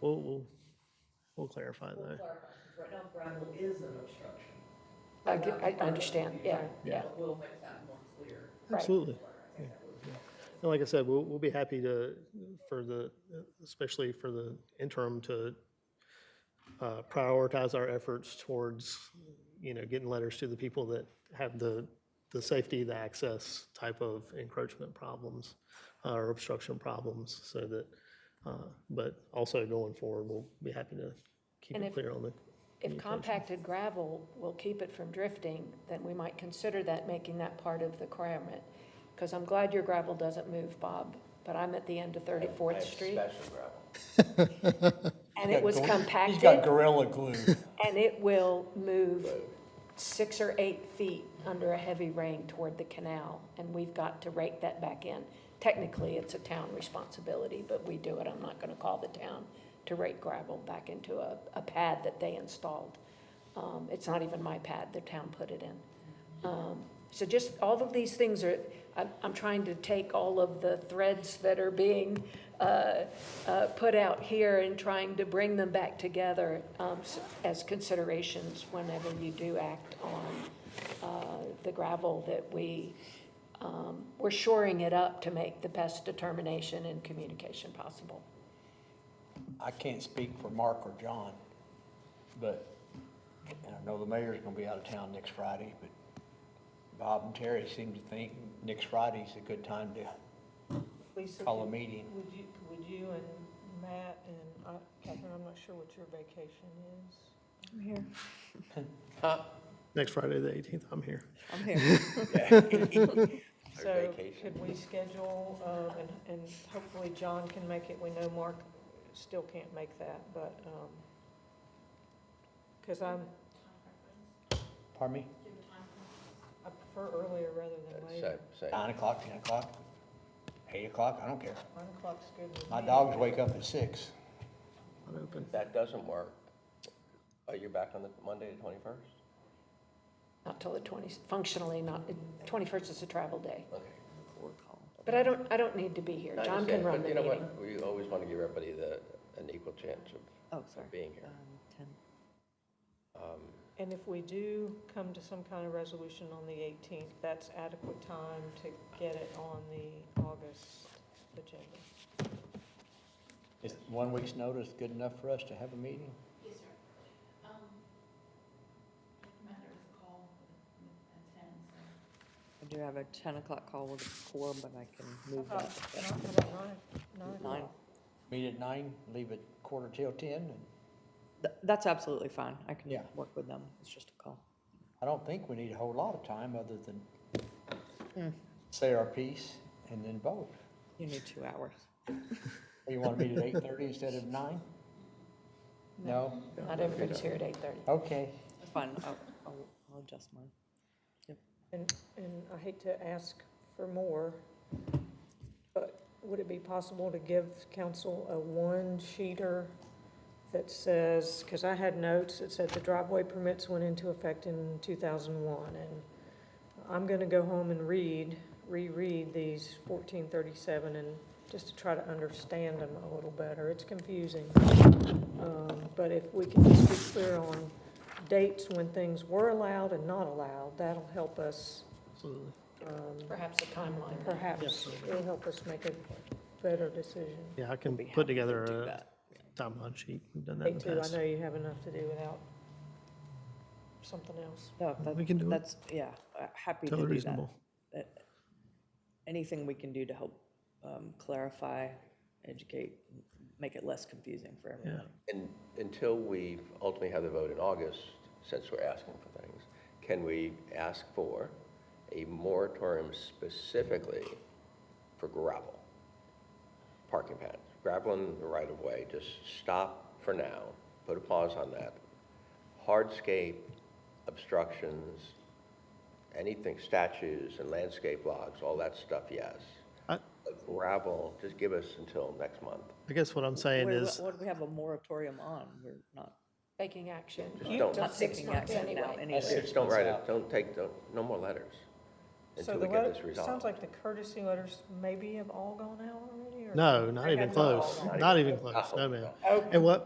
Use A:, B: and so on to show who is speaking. A: We'll, we'll, we'll clarify
B: We'll
A: that.
B: clarify, 'cause right now gravel is an obstruction.
C: I get- I understand, yeah, yeah.
B: But We'll make that more clear.
C: Right.
A: Absolutely.
B: I think that would be-
A: And like I said, we'll, we'll be happy to, for the, especially for the interim to uh, prioritize our efforts towards, you know, getting letters to the people that have the, the safety, the access type of encroachment problems uh, or obstruction problems so that, uh, but also going forward, we'll be happy to keep
C: And
A: it
C: if-
A: clear on the.
C: If
A: communication.
C: compacted gravel will keep it from drifting, then we might consider that, making that part of the requirement. Because I'm glad your gravel doesn't move, Bob, but I'm at the end of
D: I
C: 34th
D: have
C: Street,
D: Special gravel.
C: and it was
E: He's got
C: compacted,
E: gorilla glue.
C: and it will move six or eight feet under a heavy rain toward the canal, and we've got to rake that back in. Technically, it's a town responsibility, but we do it, I'm not gonna call the town to rake gravel back into a, a pad that they installed. Um, it's not even my pad, the town put it in. Um, so just, all of these things are, I'm, I'm trying to take all of the threads that are being, uh, uh, put out here and trying to bring them back together, um, s- as considerations whenever you do act on, uh, the gravel that we, um, we're shoring it up to make the best determination and communication possible.
E: I can't speak for Mark or John, but, and I know the mayor's gonna be out of town next Friday, but Bob and Terry seem to think next Friday's a good time to
F: Lisa,
E: call a
F: could-
E: meeting.
F: would you, would you and Matt and, uh, Catherine, I'm not sure what your vacation is. I'm here.
A: Next Friday, the 18th, I'm here.
F: I'm here.
D: Our
F: So
D: vacation.
F: could we schedule, um, and, and hopefully John can make it. We know Mark still can't make that, but, um, cause I'm,
E: Pardon me?
F: I prefer earlier rather than
D: So,
F: later.
D: so,
E: Nine o'clock, ten o'clock, eight o'clock, I don't care.
F: One o'clock's good with me.
E: My dogs wake up at six.
A: I'm open.
D: that doesn't work. Oh, you're back on the Monday, the twenty-first?
C: Not till the 20, functionally not, 21st is a travel day.
D: Okay.
C: But I don't, I don't need to be here.
D: I
C: John
D: understand,
C: can run
D: but
C: the
D: you know what?
C: meeting.
D: We always want to give everybody the, an equal chance of
G: Oh,
D: of being here. Um,
F: And if we do come to some kind of resolution on the 18th, that's adequate time to get it on the August agenda.
E: Is one week's notice good enough for us to have a meeting?
H: Yes, sir. Um, Matt, there was a call at ten, so.
G: I do have a 10 o'clock call with a quorum, but I can move that.
F: How about nine? Nine?
G: Nine.
E: Meet at nine, leave at quarter till ten, and
G: Th- That's absolutely fine. I can
E: Yeah.
G: work with them. It's just a call.
E: I don't think we need a whole lot of time other than say our piece and then vote.
G: You need two hours.
E: Oh, You want to meet at eight thirty instead of nine? No?
C: Not everybody's here at 8:30.
E: Okay.
G: It's fine. I'll, I'll I'll adjust mine.
F: And, and I hate to ask for more, but would it be possible to give council a one-sheeter that says, because I had notes that said the driveway permits went into effect in 2001, and I'm going to go home and read, reread these 1437, and just to try to understand them a little better. It's confusing. Um, But if we can just be clear on dates when things were allowed and not allowed, that'll help us,
A: Absolutely.
F: um,
C: Perhaps a timeline.
F: perhaps,
A: Yes.
F: it'll help us make a better decision.
A: Yeah, I can
G: Be happy
A: put
G: to
A: together
G: do
A: a
G: that.
A: timeline sheet. We've done that
F: Me
A: in the
F: too, I
A: past.
F: know you have enough to do without something else.
G: No,
A: We
G: that-
A: can do it.
G: that's, yeah, uh, happy to
A: Totally
G: do that.
A: reasonable.
G: Anything we can do to help um, clarify, educate, make it less confusing for everyone.
D: And until we ultimately have the vote in August, since we're asking for things, can we ask for a moratorium specifically for gravel? Parking pads, gravel in the right of way, just stop for now, put a pause on that. Hardscape, obstructions, anything, statues and landscape logs, all that stuff, yes.
A: I-
D: But Gravel, just give us until next month.
A: I guess what I'm saying
G: Where-
A: is,
G: What do we have a moratorium on? We're not
C: Taking action.
D: Just don't.
C: Till six
G: taking
C: months
G: action now
C: anyway.
G: anyway.
D: Just don't write it, don't take, don't, no more letters. until
F: So
D: we
F: the
D: get
F: letter,
D: this
F: it
D: resolved.
F: sounds like the courtesy letters maybe have all gone out already, or?
A: No, not even
F: Okay.
A: close, not even close, no, ma'am. And what,